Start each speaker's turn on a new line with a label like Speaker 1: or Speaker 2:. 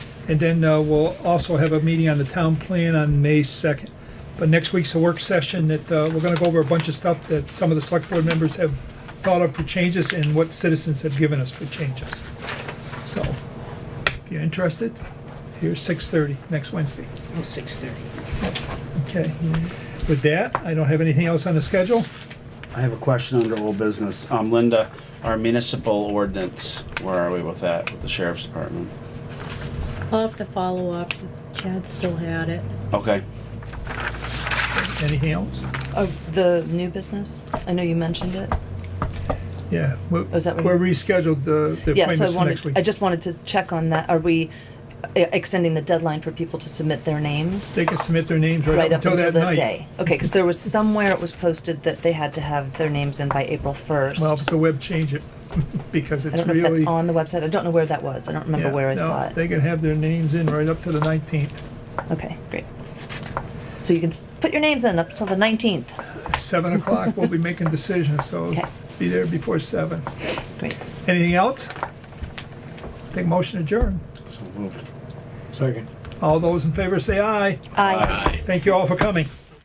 Speaker 1: And then uh, we'll also have a meeting on the town plan on May 2nd. But next week's a work session that uh, we're going to go over a bunch of stuff that some of the select board members have thought of for changes and what citizens have given us for changes. So if you're interested, here's 6:30 next Wednesday.
Speaker 2: Oh, six thirty.
Speaker 1: Okay. With that, I don't have anything else on the schedule.
Speaker 3: I have a question under old business. Um, Linda, our municipal ordinance, where are we with that, with the sheriff's department?
Speaker 4: I'll have to follow up. Chad still had it.
Speaker 3: Okay,
Speaker 1: Anything else?
Speaker 5: Of the new business? I know you mentioned it.
Speaker 1: Yeah. We're
Speaker 5: Oh, is that what you-
Speaker 1: we're rescheduled the the
Speaker 5: Yeah, so I
Speaker 1: appointments for next
Speaker 5: wanted,
Speaker 1: week.
Speaker 5: I just wanted to check on that. Are we uh, extending the deadline for people to submit their names?
Speaker 1: They can submit their names
Speaker 5: Right up until
Speaker 1: that
Speaker 5: that
Speaker 1: night.
Speaker 5: day? Okay, because there was somewhere it was posted that they had to have their names in by April
Speaker 1: Well,
Speaker 5: 1st.
Speaker 1: if the web change it, because
Speaker 5: I
Speaker 1: it's
Speaker 5: don't know if that's
Speaker 1: really.
Speaker 5: on the website. I don't know where that was. I don't remember
Speaker 1: Yeah,
Speaker 5: where I
Speaker 1: no,
Speaker 5: saw it.
Speaker 1: They can have their names in right up to the nineteenth,
Speaker 5: Okay, great. So you can s- put your names in up till the 19th.
Speaker 1: seven o'clock, we'll be making decisions, so
Speaker 5: Okay.
Speaker 1: be there before seven.
Speaker 5: Great.
Speaker 1: Anything else? Take motion adjourn.
Speaker 3: so moved.
Speaker 6: Second.
Speaker 1: All those in favor say aye.
Speaker 5: Aye.
Speaker 1: Thank you all for coming.